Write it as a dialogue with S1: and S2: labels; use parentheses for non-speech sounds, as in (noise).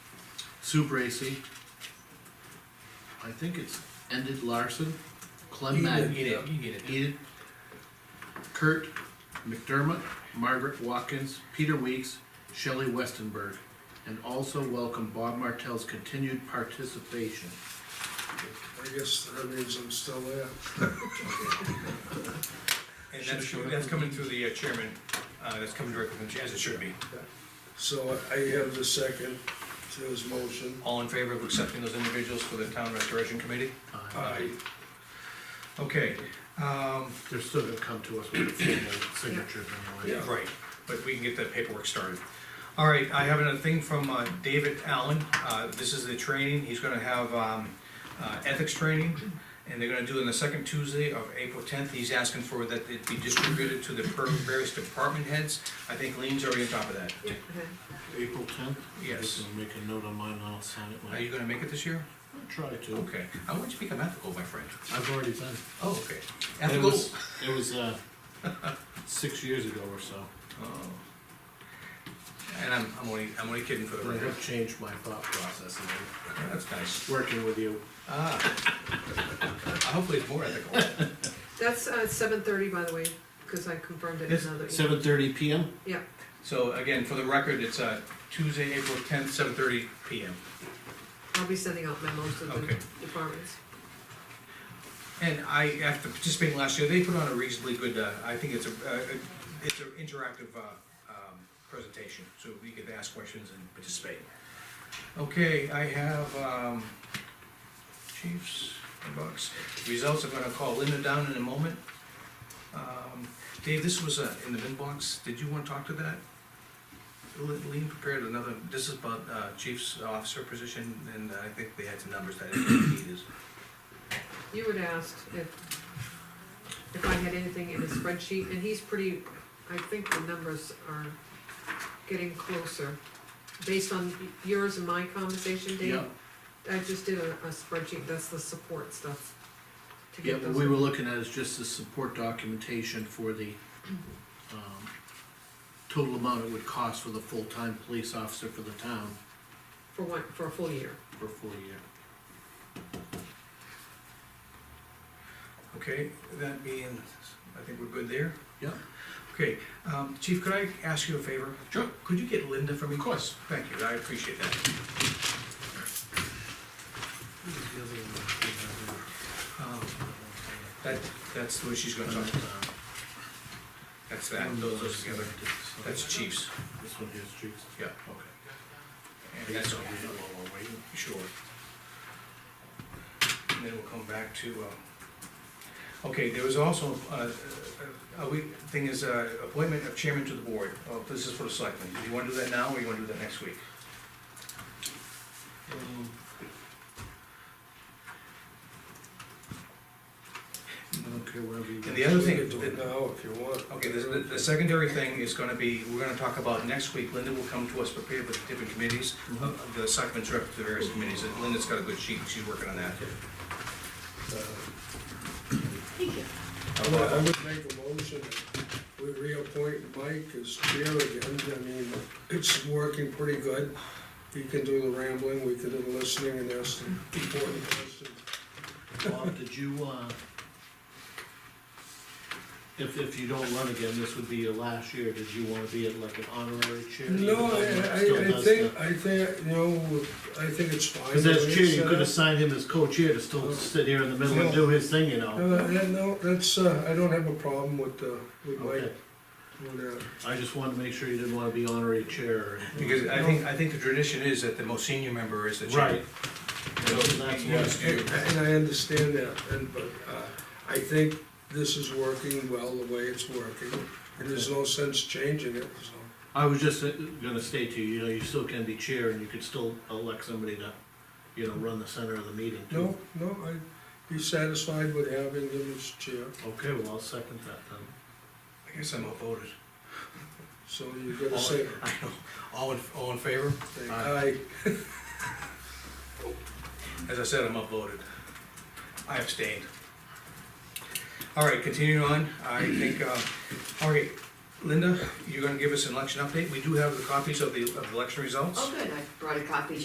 S1: Sue Bracy. I think it's ended Larson, Clem Maggie.
S2: Get it, you get it.
S1: Edith, Kurt McDermott, Margaret Watkins, Peter Weeks, Shelley Westenberg, and also welcome Bob Martell's continued participation.
S3: I guess that means I'm still there.
S2: And that's, that's coming through the uh, chairman, uh, that's coming directly from the chair, as it should be.
S3: So I have the second to his motion.
S2: All in favor of accepting those individuals for the town restoration committee?
S1: Uh,
S2: Okay, um,
S1: They're still gonna come to us with a formal signature anyway.
S2: right, but we can get that paperwork started. All right, I have another thing from, uh, David Allen, uh, this is the training, he's gonna have, um, uh, ethics training, and they're gonna do it on the second Tuesday of April tenth, he's asking for that it be distributed to the per- various department heads. I think Lean's already on top of that.
S4: Yeah, okay.
S1: April tenth?
S2: Yes.
S1: Make a note on mine, and I'll sign it
S2: Are
S1: when
S2: you gonna make it this year?
S1: I try to.
S2: Okay, I want you to become ethical, my friend.
S1: I've already been.
S2: Oh, okay.
S1: It
S2: Ethical.
S1: was, it was, uh, (laughs) six years ago or so.
S2: Oh. And I'm, I'm only, I'm only kidding for the
S1: But I
S2: record. Oh,
S1: have changed my thought process and
S2: That's nice.
S1: working with you.
S2: Ah. (laughs) Hopefully it's more ethical.
S4: That's, uh, seven thirty, by the way, because I confirmed it in
S2: Yes,
S4: another email.
S1: Seven thirty PM?
S4: Yeah,
S2: So again, for the record, it's uh, Tuesday, April tenth, seven thirty PM.
S4: I'll be sending out memos to the
S2: Okay.
S4: departments.
S2: And I, after participating last year, they put on a reasonably good, uh, I think it's a, uh, it's an interactive, uh, um, presentation, so we could ask questions and participate. Okay, I have, um, chiefs, inbox, results, I'm gonna call Linda down in a moment. Um, Dave, this was, uh, in the inbox, did you wanna talk to that? Lean prepared another, this is about, uh, chief's officer position, and uh, I think they had some numbers that he needed.
S4: You had asked if, if I had anything in a spreadsheet, and he's pretty, I think the numbers are getting closer. Based on yours and my conversation, Dave,
S1: Yep.
S4: I just did a, a spreadsheet, that's the support stuff. to
S1: Yeah, what
S4: get those.
S1: we were looking at is just the support documentation for the, um, total amount it would cost for the full-time police officer for the town
S4: For one, for a full year.
S1: for a full year.
S2: Okay, that being, I think we're good there.
S1: Yeah.
S2: Okay, um, Chief, could I ask you a favor?
S1: Sure.
S2: Could you get Linda for me? Of course. Thank you, I appreciate that. Um, That, that's the way she's gonna talk, that's that, those those together, that's Chiefs,
S1: This one here's Chiefs.
S2: yeah,
S1: Okay.
S2: and that's,
S1: While we're waiting.
S2: sure. And then we'll come back to, um, okay, there was also, uh, uh, uh, we, thing is, uh, appointment of chairman to the board, oh, this is for the selectmen, do you wanna do that now, or you wanna do that next week?
S1: I don't care whatever you.
S2: And the other
S3: You
S2: thing, uh,
S3: can do it now if you want.
S2: Okay, the, the- the secondary thing is gonna be, we're gonna talk about next week, Linda will come to us prepared with different committees, uh, the selectmen's rep to the various committees, and Linda's got a good sheet, she's working on that.
S3: I would- I
S2: uh,
S3: would make a motion, we reappoint Mike as chair again, I mean, E. it's working pretty good. He can do the rambling, we can do the listening, and ask the important questions.
S1: Bob, did you, uh, if, if you don't run again, this would be your last year, did you wanna be at like an honorary chair?
S3: No, I,
S1: Even though Mike still
S3: I, I
S1: does
S3: think,
S1: the-
S3: I think, you know, I think it's fine.
S1: Cause as chair, you
S3: Uh,
S1: could assign him as co-chair to still sit here in the middle and do his thing, you know?
S3: Uh, yeah, no, that's, uh, I don't have a problem with, uh, with Mike
S1: Okay.
S3: doing that.
S1: I just wanted to make sure you didn't wanna be honorary chair or anything.
S2: Because I think, I think the tradition is that the most senior member is the chair.
S1: Right. That's- that's what-
S2: Yes,
S3: And
S2: you-
S3: and I understand that, and, but, uh, I think this is working well the way it's working, and there's no sense changing it, so.
S1: I was just uh, gonna state to you, you know, you still can be chair and you could still elect somebody to, you know, run the center of the meeting too.
S3: No, no, I'd be satisfied with having him as chair,
S1: Okay, well, I'll second that then.
S2: I guess I'm outvoted.
S3: so you gotta
S2: All,
S3: say,
S2: (laughs) I know. all in, all in favor?
S3: aye,
S2: As I said, I'm upvoted. I abstained. All right, continuing on, I think, uh, all right, Linda, you're gonna give us an election update. We do have the copies of the, of the election results.
S5: Oh, good, I brought a copy